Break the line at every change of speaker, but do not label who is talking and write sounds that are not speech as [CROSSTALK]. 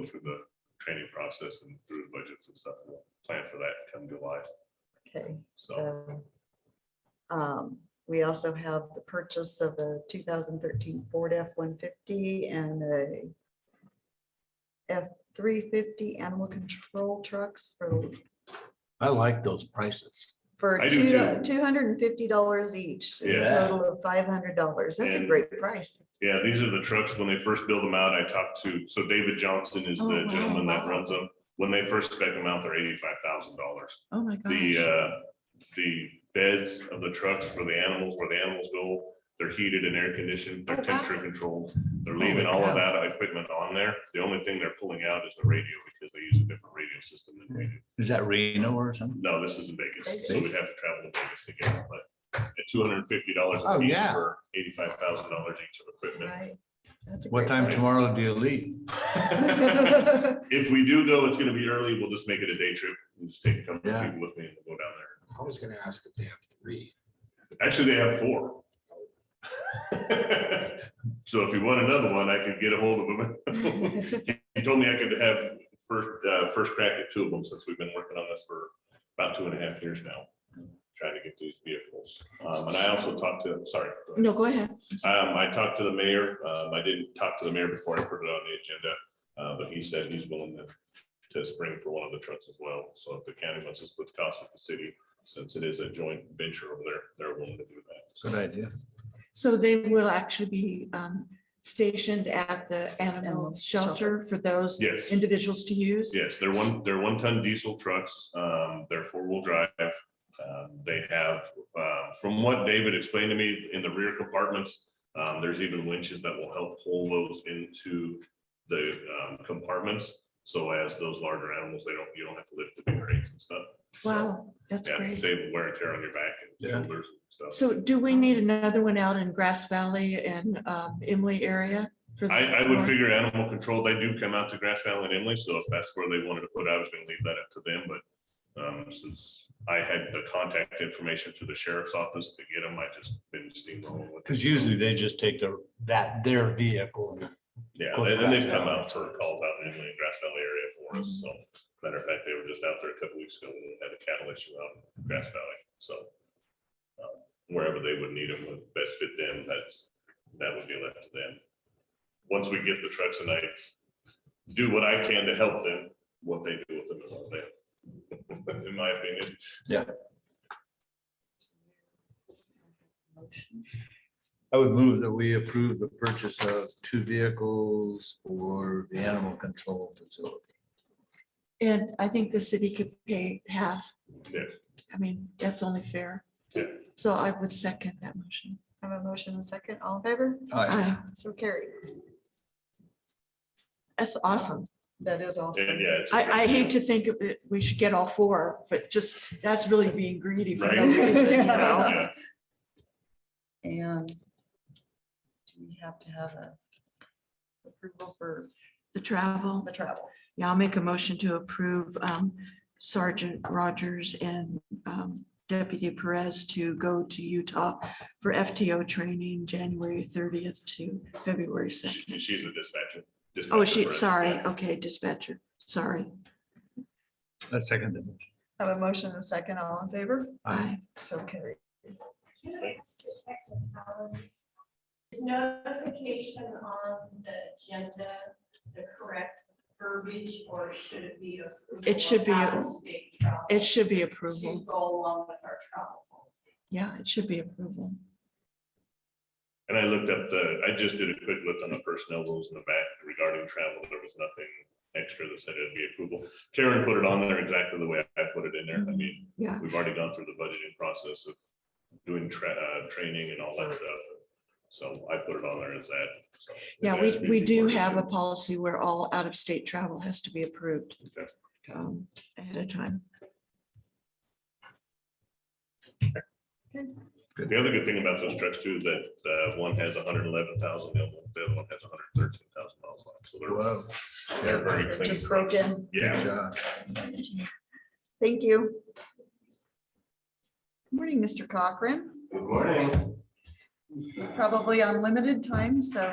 go through the training process and through the budgets and stuff. We'll Plan for that come July.
Okay, so.
So-
Um, we also have the purchase of a 2013 Ford F-150 and a F-350 animal control trucks for,
I like those prices.
for
I do
two,
too.
$250 each. a
Yeah.
Total of $500. That's a
And-
great price.
Yeah, these are the trucks, when they first build them out, I talked to, so David Johnston is
Oh,
the
wow.
gentleman that runs them. When they first spec them out, they're eighty-five thousand dollars.
Oh, my
The, uh, the beds of the trucks for the animals, where the animals go, they're heated and air conditioned,
Oh,
they're
wow. Oh,
temperature controlled. They're
Holy
leaving all of
cow.
that equipment on there. The only thing they're pulling out is the radio because they use a different radio system than we do.
Is that Reno or something?
No, this is in Vegas, so
Vegas.
we'd have to travel to Vegas to get it, but at two hundred and fifty dollars a
Oh,
piece
yeah.
for eighty-five thousand dollars each of equipment.
Right. That's a
What
great
time
price.
tomorrow do you leave?
If we do go, it's gonna be early. We'll just make it a day trip. We'll just take a couple of
Yeah.
people with me and we'll go down there.
I was gonna ask if they have three.
Actually, they have four. So if you want another one, I could get a hold of him. He told me I could have first, uh, first crack at two of them since we've been working on this for about two and a half years now. Trying to get these vehicles. Um, and I also talked to, sorry. go ahead.
No, go ahead.
Um, I talked to the mayor. Um, I didn't talk to the mayor before I put it on the agenda. Uh, but he said he's willing to, to spring for one of the trucks as well. So if the county wants to split the cost with the city, since it is a joint venture over there, they're willing to do that. So
Good idea.
So they will actually be um, stationed at the
Animal
animal shelter for those
Yes.
individuals to use?
Yes, they're one, they're one-ton diesel trucks. Um, they're four-wheel drive. Um, they have, uh, from what David explained to me, in the rear compartments, um, there's even winches that will help pull those into the, um, compartments. So as those larger animals, they don't, you don't have to lift the big crates and stuff. So,
Wow, that's
Yeah,
great.
save wear and tear on your back and
Yeah.
shoulders and stuff.
So do we need another one out in Grass Valley and um, Emily area? for the-
I, I would figure animal control, they do come out to Grass Valley and Emily, so if that's where they wanted to put, it, I was gonna leave that up to them, but. Um, since I had the contact information to the sheriff's office to get them, I just been steamrolling with. it.
Because usually they just take their, that, their vehicle. and-
Yeah,
go to
and then they've
Grass
come
Valley.
out for calls out in Emily and Grass Valley area for us, so. Matter of fact, they were just out there a couple weeks ago, and had a cattle issue out in Grass Valley, so. um, Wherever they would need them would best fit them, that's, that would be left to them. Once we get the trucks and I do what I can to help them, what they do with them is all them. [LAUGHS] In my opinion,
I would move that we approve the purchase of two vehicles for the animal control facility.
And I think the city could pay half.
Yeah.
I mean, that's only fair.
Yeah.
So I would second that motion.
Have a motion and a second. All in favor?
Aye.
So carried.
That's awesome.
That is awesome.
and yeah. it's-
I, I hate to think of it, we should get all four, but just, that's really being greedy [LAUGHS] for no
Right. [LAUGHS]
reason, you know?
Yeah,
[LAUGHS]
And we have to have a approval for
The travel,
the travel.
yeah, I'll make a motion to approve um, Sergeant Rogers and um, Deputy Perez to go to Utah for FTO training, January thirtieth to February
she-
second.
She's a dispatcher.
Oh,
dispatcher
she,
for us,
sorry,
yeah.
okay, dispatcher, sorry.
That's second. the motion.
Have a motion and a second. All in favor?
Aye.
So carried.
Can I ask a technicality? Is notification on the agenda the correct verbiage or should it be? approval
It should be a-
of out-of-state travel
It should be
To
approval,
go along with our travel policy.
yeah, it should be approval.
And I looked up the, I just did a quick look on the personnel rules in the back regarding travel. There was nothing extra that said it'd be approval. Karen put it on there exactly the way I put it in
Mm-hmm.
there. I mean,
Yeah.
we've already gone through the budgeting process of doing tra- uh, training and all that stuff. So I put it on there as that. so.
Yeah, we,
That's
we do
before-
have a policy where all out-of-state travel has to be approved
Okay.
um, ahead of time.
The other good thing about those trucks too, is that uh, one has hundred and eleven thousand, the other one- the other one has hundred and thirteen thousand miles on it. So they're-
Whoa,
they're very clean.
Just
trucks.
broken.
good
Yeah,
job.
Thank you. Good Morning, Mr. Cochran. Good morning. Probably on limited time, so